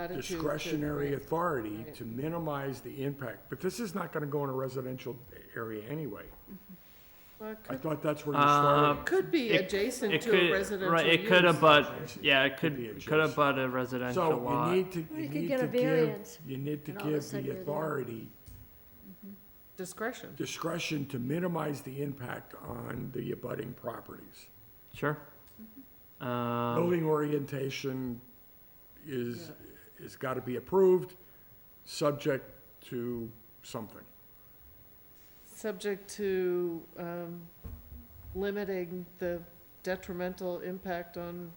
Attitude to- discretionary right. authority to minimize the impact, but this is not gonna go in a residential area anyway. Well, it I could- thought that's where Uh, you started. Could be it- adjacent It to a could, residential right, it could use. abut, yeah, it could, be could adjacent. abut a residential So you lot. need to, Well, you you could need get a to give, variance, you need to and all of a give sudden the you're there. authority Discretion. discretion to minimize the impact on the abutting properties. Sure. Um, Building orientation is, is gotta be approved, subject to something. Subject to um, limiting the detrimental impact on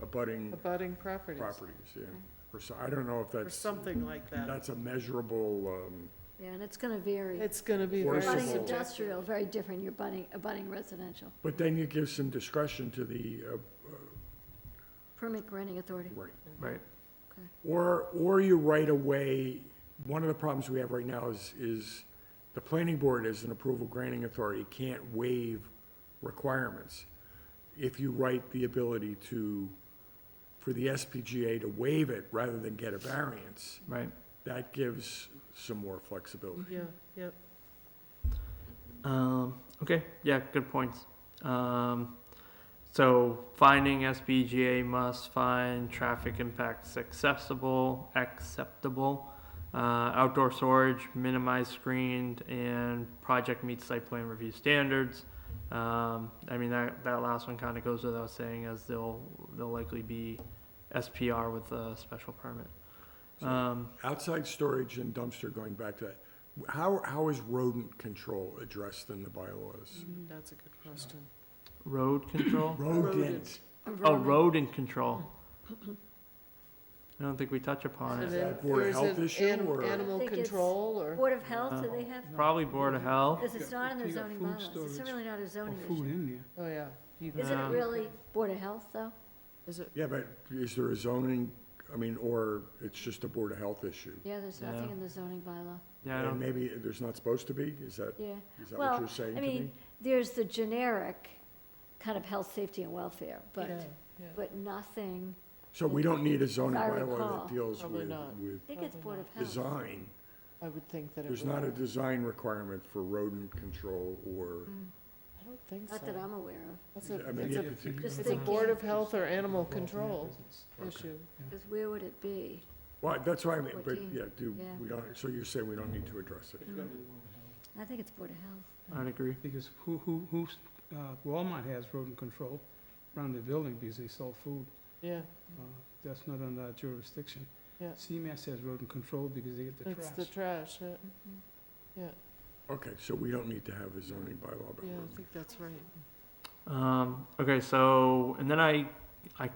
abutting abutting properties, properties, yeah. Or so, I don't know if or that's, something like that. that's a measurable, um, Yeah, and it's gonna vary. It's gonna be very Forcible. Budding Budding subjective. industrial, very different, you're budding, abutting residential. but then you give some discretion to the, uh, Permit granting authority. right. right, Or, or you right away, one of the problems we have right now is, is the planning board as an approval granting authority can't waive requirements. If you write the ability to, for the SPGA to waive it rather than get a variance, right. that gives some more flexibility. Yeah, yeah. Um, okay, yeah, good points. Um, so finding SBGA must find traffic impacts accessible, acceptable. Uh, outdoor storage minimized, screened, and project meets site plan review standards. Um, I mean that that last one kind of goes without saying, as they'll they'll likely be SPR with a special permit. Um, Outside storage and dumpster, going back to that, how, how is rodent control addressed in the bylaws? mm-hmm, That's a good question. road control. Rodent, Oh, rodent control. I don't think we touch And upon it. Is that then for a there's health an issue, an- or- I Animal think it's- control or, Board of Health, do they have, Probably Board of Health. because it's not in their You got zoning food bylaws, it's storage really not a zoning Food issue. in there. oh, yeah. You- Isn't it Um, really Board of Health, though? Is it, yeah, but is there a zoning, I mean, or it's just a Board of Health issue? Yeah, there's nothing Yeah. in the zoning bylaw, Yeah, I And don't, maybe there's not supposed to be, is that, yeah. is that what Well, you're saying I to me? mean, there's the generic kind of health, safety, and welfare, yeah, but, yeah. but nothing, So we don't need a zoning If I bylaw recall. that deals Probably with, not. with I think it's Board of Health. design. I would think that it would. There's not a design requirement for rodent control or, I don't think so. Mm, Not that I'm aware of, That's I a, mean, it's a, yeah, it's a- Just it's a thinking. Board of Health or animal control Okay. issue. because where would it be? well, that's why I mean, but, Fourteen, yeah, do, yeah. we don't, so you're saying we don't need to address it? I think it's Board of Health. I'd agree. Because who, who, who's, uh, Walmart has rodent control around their building because they sell food. Yeah, Uh, That's not under our jurisdiction. Yeah. CMAS has rodent control because they get the it's the trash. trash, yeah, Mm-hmm. Okay, so we don't need to have a zoning bylaw about yeah, rodent I think that's right. Um, okay, so, and then I, I,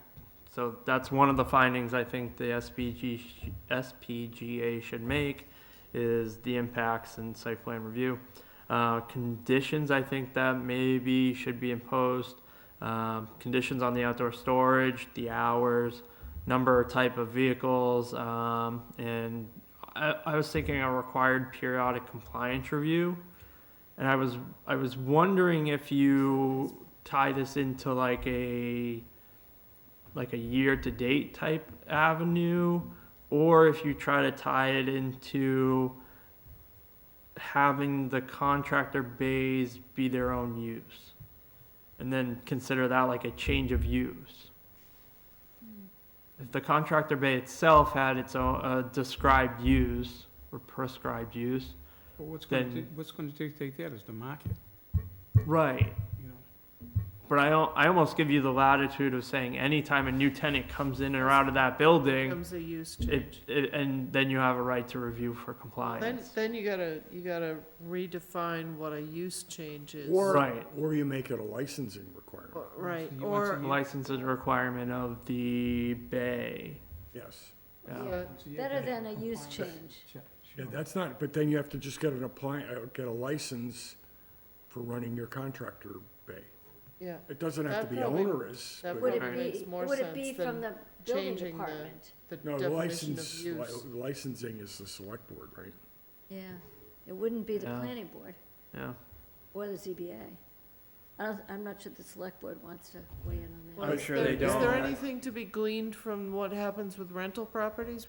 so that's one of the findings I think the SPG, sh- SPGA should make is the impacts and site plan review. Uh, conditions, I think that maybe should be imposed, um, conditions on the outdoor storage, the hours, number, type of vehicles, um, and I, I was thinking a required periodic compliance review. And I was, I was wondering if you tie this into like a, like a year-to-date type avenue, or if you try to tie it into having the contractor bays be their own use. And then consider that like a change of use. Hmm. If the contractor bay itself had its own, uh, described use or prescribed use, But what's gonna, Then- di- what's gonna dictate that is the market, right, you know? But I, al- I almost give you the latitude of saying anytime a new tenant comes in or out of that building, Becomes a use it, change. it, and then you have a right to review for Then, compliance. then you gotta, you gotta redefine what a use change is. Or, Right. or you make it a licensing requirement, Or- Right, You want or, some- License is a requirement of the bay. yes. Yeah. yeah, So you have Better to have than a use compliance. change. Sure, Yeah, sure. that's not, but then you have to just get an apply, uh, get a license for running your contractor bay. yeah, It doesn't have to That be probably- onerous. that but- Would Right. it Makes be, more would it be sense from the than building changing the- department? the No, definition of license, use. li- licensing is the select board, right? Yeah, it wouldn't be the Yeah. planning board Yeah. or the ZBA. I don't, I'm not sure the select board wants to weigh in on that. Well, I'm is sure there- they Is there don't. anything to be gleaned from what happens with rental properties?